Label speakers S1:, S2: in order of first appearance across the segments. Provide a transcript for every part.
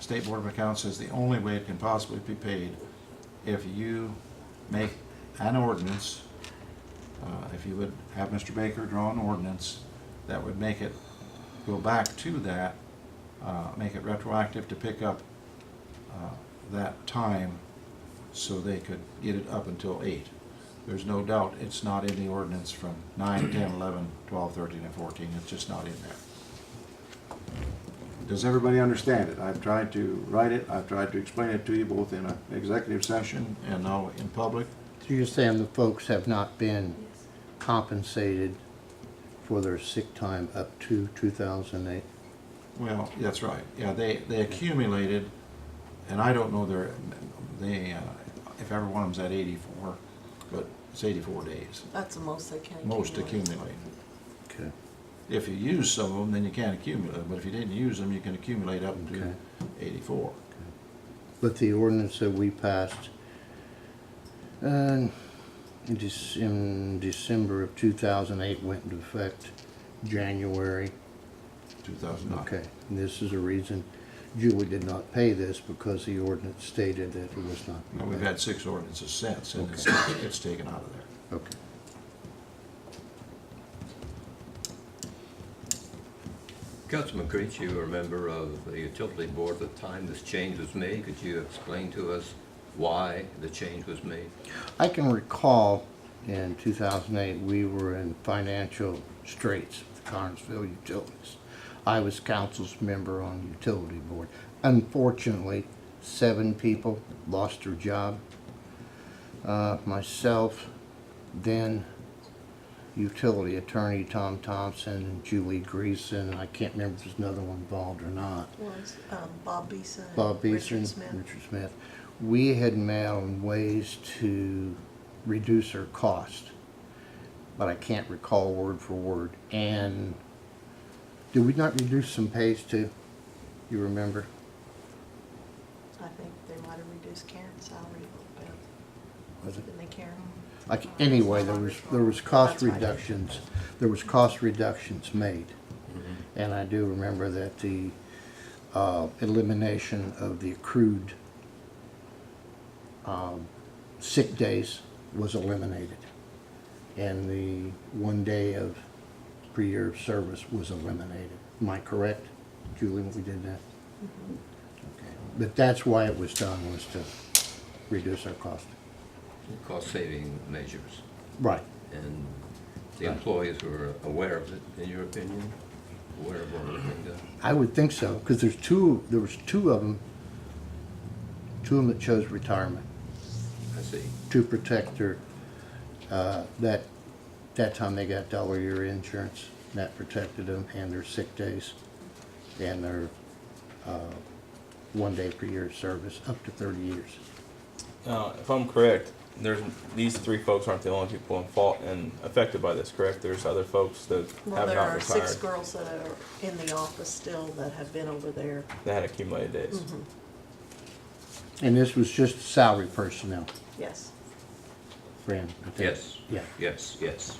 S1: State Board of Accounts says the only way it can possibly be paid if you make an ordinance, uh, if you would have Mr. Baker draw an ordinance that would make it go back to that, uh, make it retroactive to pick up uh, that time so they could get it up until eight. There's no doubt it's not in the ordinance from nine, ten, eleven, twelve, thirteen, and fourteen. It's just not in there. Does everybody understand it? I've tried to write it, I've tried to explain it to you both in an executive session and now in public.
S2: So you're saying the folks have not been compensated for their sick time up to 2008?
S1: Well, that's right. Yeah, they, they accumulated, and I don't know their, they, uh, if every one of them's at eighty-four, but it's eighty-four days.
S3: That's the most they can.
S1: Most
S3: accumulate.
S1: accumulate.
S2: Okay.
S1: If you use some of them, then you can't accumulate, but if you didn't use them, you can accumulate up to
S2: Okay.
S1: eighty-four.
S2: But the ordinance that we passed uh, in Dec- in December of 2008 went into effect January.
S1: Two thousand nine.
S2: Okay, and this is a reason Julie did not pay this because the ordinance stated that it was not.
S1: Now, we've had six ordinances since, and it's, it's taken out of there.
S2: Okay.
S4: Councilman Creech, you were a member of the utility board at the time this change was made. Could you explain to us why the change was made?
S2: I can recall in 2008, we were in financial straits with Carnesville Utilities. I was council's member on the utility board. Unfortunately, seven people lost their job. Uh, Myself, then utility attorney Tom Thompson, and Julie Greason, and I can't remember if there's another one involved or not.
S3: Was um, Bob Beeson. and
S2: Bob Beeson,
S3: Richard Smith.
S2: Richard Smith. We had met on ways to reduce our cost, but I can't recall word for word. And did we not reduce some pays too? You remember?
S3: I think they might have reduced Karen's salary a little
S2: Was
S3: bit.
S2: it?
S3: Didn't they, Karen?
S2: Like, anyway, there was, there was cost
S3: That's right.
S2: reductions, there was cost reductions made. And I do remember that the, uh, elimination of the accrued, um, sick days was eliminated. And the one day of pre-year of service was eliminated. Am I correct, Julie, when we did that? Okay, but that's why it was done, was to reduce our cost.
S4: Cost-saving measures,
S2: Right.
S4: and the employees were aware of it, in your opinion? Aware of what was being done?
S2: I would think so, because there's two, there was two of them, two of them that chose retirement
S4: I see.
S2: to protect their, uh, that, that time they got dollar a year insurance, and that protected them and their sick days and their, uh, one day per year of service, up to thirty years.
S5: Now, if I'm correct, there's these three folks aren't the only people in fault and affected by this, correct? There's other folks that
S3: Well,
S5: have
S3: there
S5: not
S3: are
S5: retired
S3: six girls that are in the office still that have been over there.
S5: that had accumulated days.
S3: Mm-hmm.
S2: And this was just salary personnel,
S3: Yes.
S2: Fran? I think.
S4: Yes.
S2: Yeah.
S4: Yes, yes.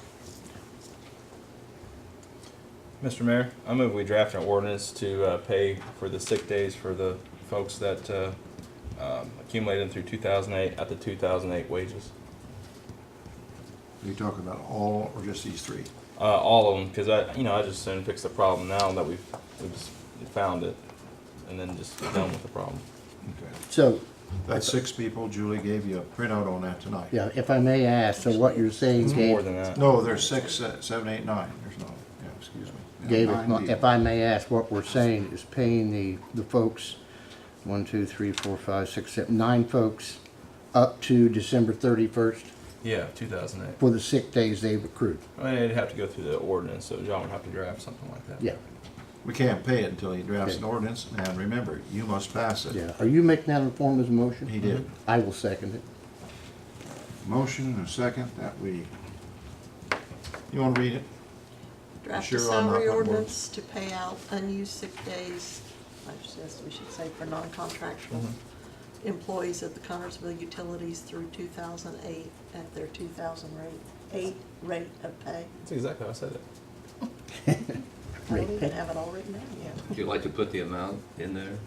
S5: Mr. Mayor, I move we draft an ordinance to uh, pay for the sick days for the folks that uh, um, accumulated through 2008 at the 2008 wages.
S1: Are you talking about all or just these three?
S5: Uh, all of them, because I, you know, I just soon fix the problem now that we've, we've just found it, and then just be done with the problem.
S1: Okay.
S2: So,
S1: That's six people. Julie gave you a printout on that tonight.
S2: yeah, if I may ask, so what you're saying,
S5: It's more
S2: Gabe,
S5: than that.
S1: No, there's six, uh, seven, eight, nine. There's no, yeah, excuse me. Yeah,
S2: Dave,
S1: nine
S2: if my-
S1: people.
S2: if I may ask, what we're saying is paying the, the folks, one, two, three, four, five, six, seven, nine folks up to December thirty-first
S5: Yeah, 2008.
S2: for the sick days they've accrued.
S5: I mean, it'd have to go through the ordinance, so John would have to draft something like that.
S2: Yeah,
S1: We can't pay it until he drafts an
S2: Okay.
S1: ordinance, and remember, you must pass it.
S2: yeah. Are you making that in form as a motion?
S1: He did.
S2: I will second it.
S1: Motion and a second that we, you wanna read it?
S3: Draft
S1: sure
S3: a
S1: I'm not
S3: salary
S1: gonna work.
S3: ordinance to pay out unused sick days, I suggest we should say for non-contractual
S1: Mm-hmm.
S3: employees at the Connersville Utilities through two thousand eight at their two thousand rate, eight rate of pay.
S5: That's exactly how I said it.
S3: I don't even have it all written down yet.
S4: Would you like to put the amount in there?